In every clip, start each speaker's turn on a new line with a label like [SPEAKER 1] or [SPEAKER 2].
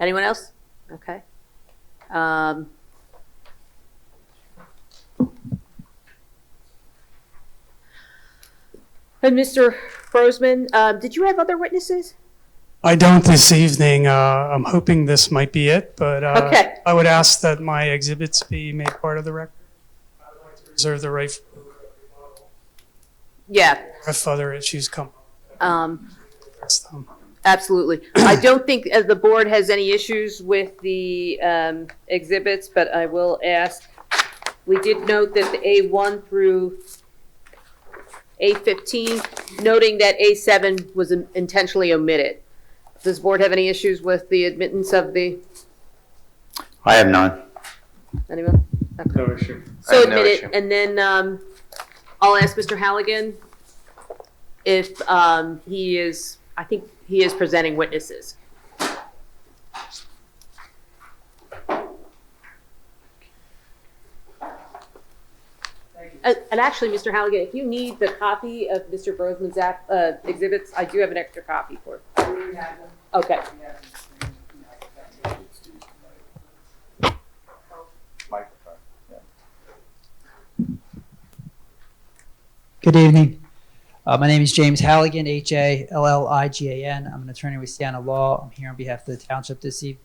[SPEAKER 1] Anyone else? Okay. Um, And Mr. Brosman, uh, did you have other witnesses?
[SPEAKER 2] I don't this evening. Uh, I'm hoping this might be it, but uh,
[SPEAKER 1] Okay.
[SPEAKER 2] I would ask that my exhibits be made part of the record. I would like to reserve the right
[SPEAKER 1] Yeah,
[SPEAKER 2] if other issues come.
[SPEAKER 1] um,
[SPEAKER 2] That's them.
[SPEAKER 1] absolutely. I don't think uh, the board has any issues with the um, exhibits, but I will ask. We did note that the A1 through A15, noting that A7 was intentionally omitted. Does the board have any issues with the admittance of the,
[SPEAKER 3] I have none.
[SPEAKER 1] anyone?
[SPEAKER 4] No issue.
[SPEAKER 1] So
[SPEAKER 3] have no
[SPEAKER 1] admit it,
[SPEAKER 3] issue.
[SPEAKER 1] and then um, I'll ask Mr. Halligan if um, he is, I think he is presenting witnesses. And and actually, Mr. Halligan, if you need the copy of Mr. Brosman's app- uh, exhibits, I do have an extra copy for. it. Okay.
[SPEAKER 5] Good evening. Uh, my name is James Halligan, H A L L I G A N. I'm an attorney with Siena Law. I'm here on behalf of the township this evening.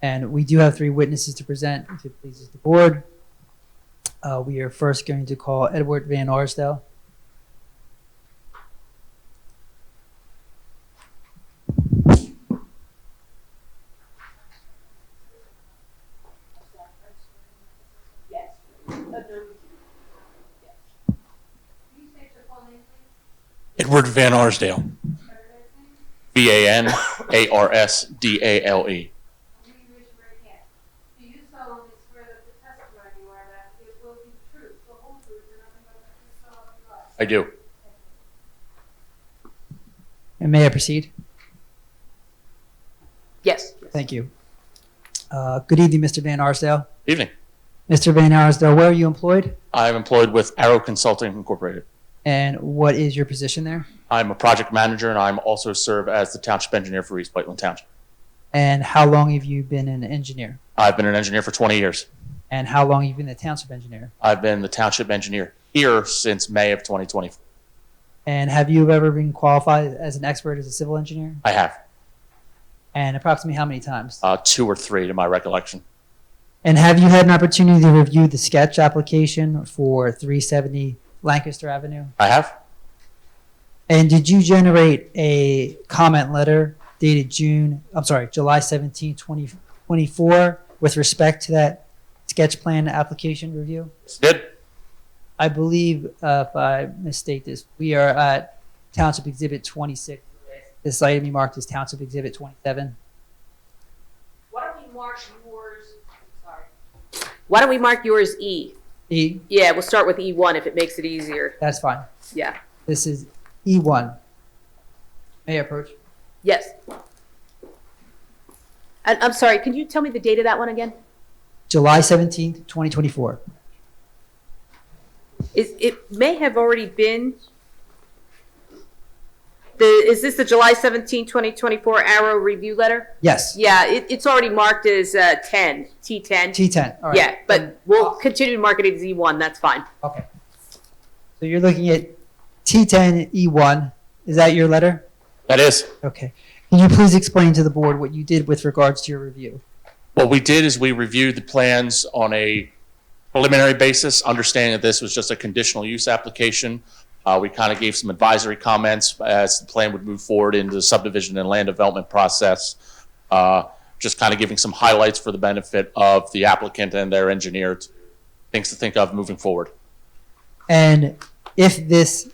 [SPEAKER 5] And we do have three witnesses to present, if it pleases the board. Uh, we are first going to call Edward Van Arsdale.
[SPEAKER 6] Edward Van Arsdale. V A N A R S D A L E.
[SPEAKER 7] Do you raise your right hand? Do you solemnly swear that the testimony you are about to give will be the truth, the whole truth, and nothing but the truth, so help you God?
[SPEAKER 6] I do.
[SPEAKER 5] And may I proceed?
[SPEAKER 1] Yes.
[SPEAKER 5] Thank you. Uh, good evening, Mr. Van Arsdale.
[SPEAKER 6] Evening.
[SPEAKER 5] Mr. Van Arsdale, where are you employed?
[SPEAKER 6] I am employed with Arrow Consulting Incorporated.
[SPEAKER 5] And what is your position there?
[SPEAKER 6] I'm a project manager and I'm also serve as the township engineer for East Whiteland Township.
[SPEAKER 5] And how long have you been an engineer?
[SPEAKER 6] I've been an engineer for 20 years.
[SPEAKER 5] And how long have you been a township engineer?
[SPEAKER 6] I've been the township engineer here since May of 2020.
[SPEAKER 5] And have you ever been qualified as an expert as a civil engineer?
[SPEAKER 6] I have
[SPEAKER 5] And approximately how many times?
[SPEAKER 6] uh, two or three to my recollection.
[SPEAKER 5] And have you had an opportunity to review the sketch application for 370 Lancaster Avenue?
[SPEAKER 6] I have.
[SPEAKER 5] And did you generate a comment letter dated June, I'm sorry, July 17, 2024 with respect to that sketch plan application review?
[SPEAKER 6] Did.
[SPEAKER 5] I believe, uh, if I misstate this, we are at Township Exhibit 26. This item you marked as Township Exhibit 27.
[SPEAKER 1] Why don't we mark yours, sorry. Why don't we mark yours E?
[SPEAKER 5] E,
[SPEAKER 1] Yeah, we'll start with E1 if it makes it easier.
[SPEAKER 5] that's fine.
[SPEAKER 1] Yeah.
[SPEAKER 5] This is E1. May I approach?
[SPEAKER 1] Yes. And I'm sorry, can you tell me the date of that one again?
[SPEAKER 5] July 17th, 2024.
[SPEAKER 1] Is, it may have already been, the, is this the July 17, 2024 Arrow review letter?
[SPEAKER 5] Yes.
[SPEAKER 1] Yeah, it, it's already marked as uh, 10, T10.
[SPEAKER 5] T10. All right.
[SPEAKER 1] Yeah, but we'll continue to mark it as E1, that's fine.
[SPEAKER 5] Okay. So you're looking at T10 E1. E Is that your letter?
[SPEAKER 6] That is.
[SPEAKER 5] Okay. Can you please explain to the board what you did with regards to your review?
[SPEAKER 6] What we did is we reviewed the plans on a preliminary basis, understanding that this was just a conditional use application. Uh, we kind of gave some advisory comments as the plan would move forward into the subdivision and land development process. Uh, just kind of giving some highlights for the benefit of the applicant and their engineer, to- things to think of moving forward.
[SPEAKER 5] And if this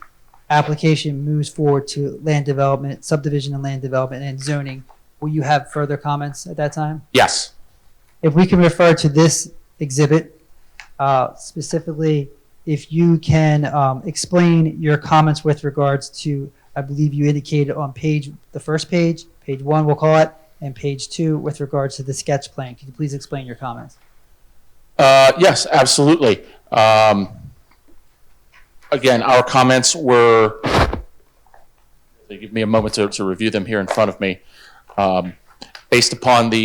[SPEAKER 5] application moves forward to land development, subdivision and land development and zoning, will you have further comments at that time?
[SPEAKER 6] Yes,
[SPEAKER 5] if we can refer to this exhibit, uh, specifically, if you can um, explain your comments with regards to, I believe you indicated on page, the first page, page one, we'll call it, and page two with regards to the sketch plan. Could you please explain your comments?
[SPEAKER 6] Uh, yes, absolutely. Um, again, our comments were, they give me a moment to, to review them here in front of me. Um, based upon the